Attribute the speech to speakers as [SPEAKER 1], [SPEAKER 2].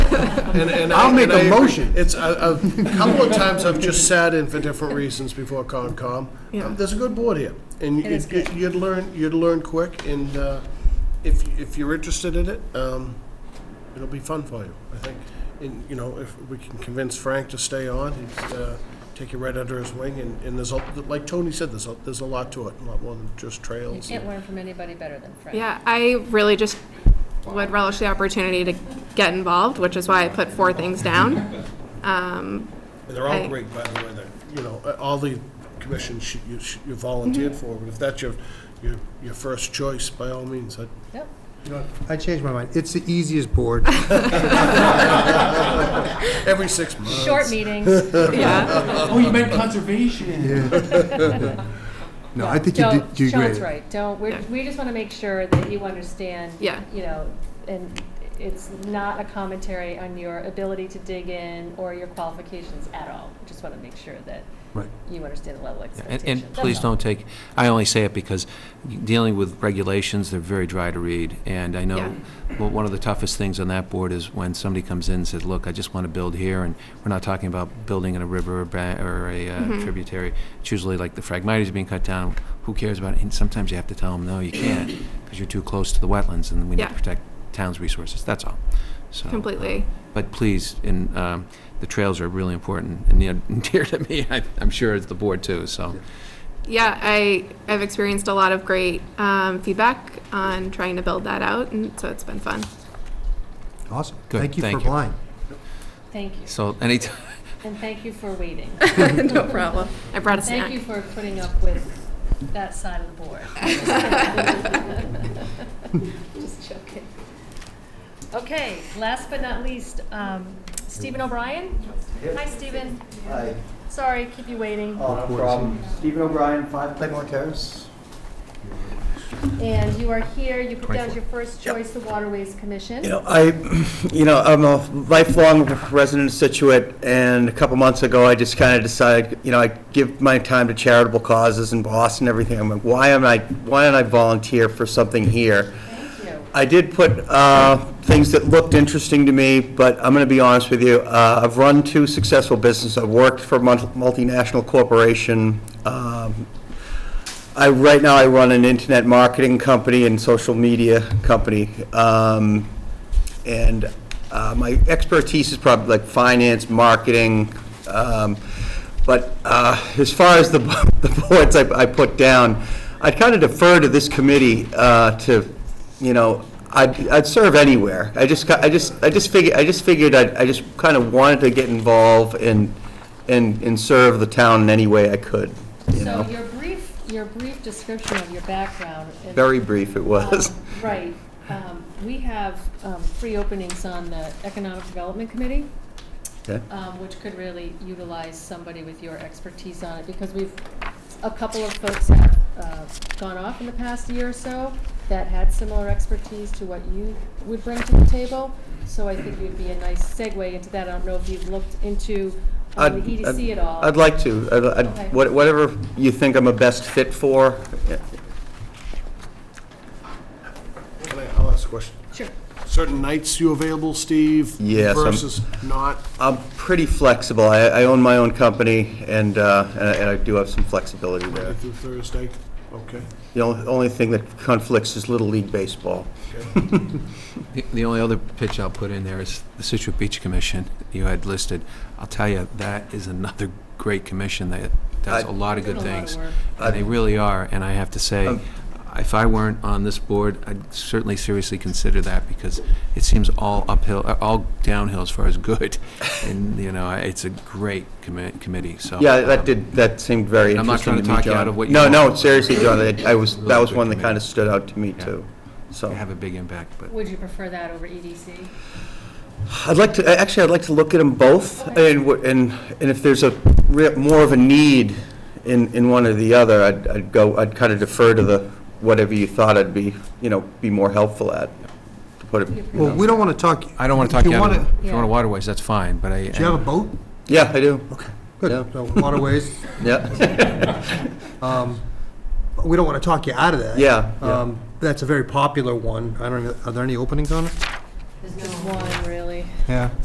[SPEAKER 1] And, and I-
[SPEAKER 2] I'll make
[SPEAKER 1] and I
[SPEAKER 2] a
[SPEAKER 1] agree.
[SPEAKER 2] motion.
[SPEAKER 1] It's, a a couple of times I've just sat in for different reasons before Concom.
[SPEAKER 3] Yeah.
[SPEAKER 1] Um, There's a good board here, and
[SPEAKER 3] It is
[SPEAKER 1] you'd-
[SPEAKER 3] good.
[SPEAKER 1] you'd learn, you'd learn quick, and uh, if, if you're interested in it, um, it'll be fun for you, I think. And, you know, if we can convince Frank to stay on, he'd uh, take you right under his wing, and, and there's, a- like Tony said, there's, a- there's a lot to it, a lot more than just trails.
[SPEAKER 4] Can't learn from anybody better than Frank.
[SPEAKER 3] Yeah, I really just would relish the opportunity to get involved, which is why I put four things down. Um,
[SPEAKER 1] And They're all
[SPEAKER 3] I-
[SPEAKER 1] great, by the way, that, you know, uh, all the commissions you- you you volunteered for, but if that's your, your, your first choice, by all means, I'd
[SPEAKER 4] Yep.
[SPEAKER 2] I changed my mind. It's the easiest board.
[SPEAKER 1] every six months.
[SPEAKER 4] Short meetings.
[SPEAKER 3] yeah,
[SPEAKER 5] Oh, you meant conservation.
[SPEAKER 2] No, I think you
[SPEAKER 4] Don't,
[SPEAKER 2] did, you
[SPEAKER 4] Sean's
[SPEAKER 2] great.
[SPEAKER 4] right, don't, we,
[SPEAKER 3] Yeah.
[SPEAKER 4] we just want to make sure that you understand.
[SPEAKER 3] Yeah.
[SPEAKER 4] You know, and it's not a commentary on your ability to dig in or your qualifications at all. We Just want to make sure that
[SPEAKER 2] Right.
[SPEAKER 4] you understand the level of
[SPEAKER 6] And,
[SPEAKER 4] expectation.
[SPEAKER 6] and
[SPEAKER 4] That's
[SPEAKER 6] please
[SPEAKER 4] all.
[SPEAKER 6] don't take, I only say it because dealing with regulations, they're very dry to read. And I know, well, one of the toughest things on that board is when somebody comes in and says, look, I just want to build here, and we're not talking about building in a river or ba- or a uh,
[SPEAKER 3] Mm-hmm.
[SPEAKER 6] tributary. It's usually like the phragmites are being cut down, who cares about it? And sometimes you have to tell them, no, you can't, because you're too close to the wetlands, and we need
[SPEAKER 3] Yeah.
[SPEAKER 6] to protect town's resources, that's all. So, uh,
[SPEAKER 3] completely.
[SPEAKER 6] but please, and um, the trails are really important and near- dear to me, I- I'm sure it's the board too, so.
[SPEAKER 3] Yeah, I, I've experienced a lot of great um, feedback on trying to build that out, and so it's been fun.
[SPEAKER 2] Awesome.
[SPEAKER 6] Good,
[SPEAKER 2] Thank you for
[SPEAKER 6] thank you.
[SPEAKER 2] applying.
[SPEAKER 4] Thank you,
[SPEAKER 6] So anytime,
[SPEAKER 4] and thank you for waiting.
[SPEAKER 3] No problem. I brought a
[SPEAKER 4] Thank you
[SPEAKER 3] snack.
[SPEAKER 4] for putting up with that side of the board. Just joking. Okay, last but not least, um, Stephen O'Brien? Hi, Stephen.
[SPEAKER 7] Hi,
[SPEAKER 4] Sorry, keep you waiting.
[SPEAKER 7] oh, no problem. Stephen O'Brien, 5 Claymore Terrace.
[SPEAKER 4] And you are here, you put down as your first choice the Waterways Commission.
[SPEAKER 7] You know, I, you know, I'm a lifelong resident of Situate, and a couple months ago, I just kind of decided, you know, I give my time to charitable causes in Boston and everything. I'm like, why am I, why don't I volunteer for something here?
[SPEAKER 4] Thank you.
[SPEAKER 7] I did put uh, things that looked interesting to me, but I'm going to be honest with you. Uh, I've run two successful businesses. I've worked for a multi- multinational corporation. Um, I, right now, I run an internet marketing company and social media company. Um, And uh, my expertise is probably like finance, marketing. um, But uh, as far as the the boards I I put down, I'd kind of defer to this committee uh, to you know, I'd, I'd serve anywhere. I just, ca- I just, I just figured, I just figured, I'd- I just kind of wanted to get involved and, and, and serve the town in any way I could, you
[SPEAKER 4] So
[SPEAKER 7] know?
[SPEAKER 4] your brief, your brief description of your background. is-
[SPEAKER 7] Very brief it was.
[SPEAKER 4] Um, Right. Um, We have um, three openings on the Economic Development Committee,
[SPEAKER 7] Okay.
[SPEAKER 4] um, which could really utilize somebody with your expertise on it, because we've, a couple of folks have uh, gone off in the past year or so that had similar expertise to what you would bring to the table, so I think you'd be a nice segue into that. I don't know if you've looked into um,
[SPEAKER 7] I'd-
[SPEAKER 4] the EDC
[SPEAKER 7] I'd-
[SPEAKER 4] at all.
[SPEAKER 7] I'd like to. I'd- I'd-
[SPEAKER 4] Okay.
[SPEAKER 7] what- Whatever you think I'm a best fit for.
[SPEAKER 1] Can I, I'll ask a question.
[SPEAKER 4] Sure.
[SPEAKER 1] Certain nights you available, Steve?
[SPEAKER 7] Yes, I'm-
[SPEAKER 1] Versus not?
[SPEAKER 7] I'm pretty flexible. I, I own my own company and, uh, and I- and I do have some flexibility there.
[SPEAKER 1] Monday through Thursday? Okay.
[SPEAKER 7] The only, only thing that conflicts is Little League Baseball.
[SPEAKER 6] the- the only other pitch I'll put in there is the Situate Beach Commission you had listed. I'll tell you, that is another great commission that does a
[SPEAKER 7] I'd-
[SPEAKER 6] lot of
[SPEAKER 4] Doing
[SPEAKER 6] good
[SPEAKER 4] a lot of
[SPEAKER 6] things.
[SPEAKER 4] work.
[SPEAKER 6] And they really are, and I have to say, if I weren't on this board, I'd certainly seriously consider that because it seems all uphill, uh, all downhill as far as good. And, you know, I- it's a great commi- committee, so.
[SPEAKER 7] Yeah,
[SPEAKER 6] um,
[SPEAKER 7] that did, that seemed very
[SPEAKER 6] I'm not trying
[SPEAKER 7] interesting to
[SPEAKER 6] to
[SPEAKER 7] me, John.
[SPEAKER 6] talk you out of what you want.
[SPEAKER 7] No, no, seriously, John, I- I was, that was
[SPEAKER 6] good
[SPEAKER 7] one that
[SPEAKER 6] committee.
[SPEAKER 7] kind of stood out to me,
[SPEAKER 6] Yeah.
[SPEAKER 7] too.
[SPEAKER 6] They
[SPEAKER 7] So,
[SPEAKER 6] have a big impact, but.
[SPEAKER 4] Would you prefer that over E EDC?
[SPEAKER 7] I'd like to, actually, I'd like to look at them both,
[SPEAKER 4] Okay.
[SPEAKER 7] and, wh- and and if there's a, re- more of a need in, in one or the other, I'd, I'd go, I'd kind of defer to the, whatever you thought I'd be, you know, be more helpful at, to put it, you
[SPEAKER 2] Well,
[SPEAKER 7] know.
[SPEAKER 2] we don't want to talk.
[SPEAKER 6] I don't want to talk you out
[SPEAKER 2] wanna-
[SPEAKER 6] of, if you
[SPEAKER 4] Yeah.
[SPEAKER 6] want to waterways, that's fine, but I.
[SPEAKER 2] Do you have a boat?
[SPEAKER 7] Yeah, I do,
[SPEAKER 2] Okay,
[SPEAKER 7] Yeah.
[SPEAKER 2] good. So waterways,
[SPEAKER 7] yeah,
[SPEAKER 2] um, we don't want to talk you out of that.
[SPEAKER 7] yeah, yeah.
[SPEAKER 2] Um, That's a very popular one. I don't, know- are there any openings on it?
[SPEAKER 4] There's one, really.
[SPEAKER 2] Yeah.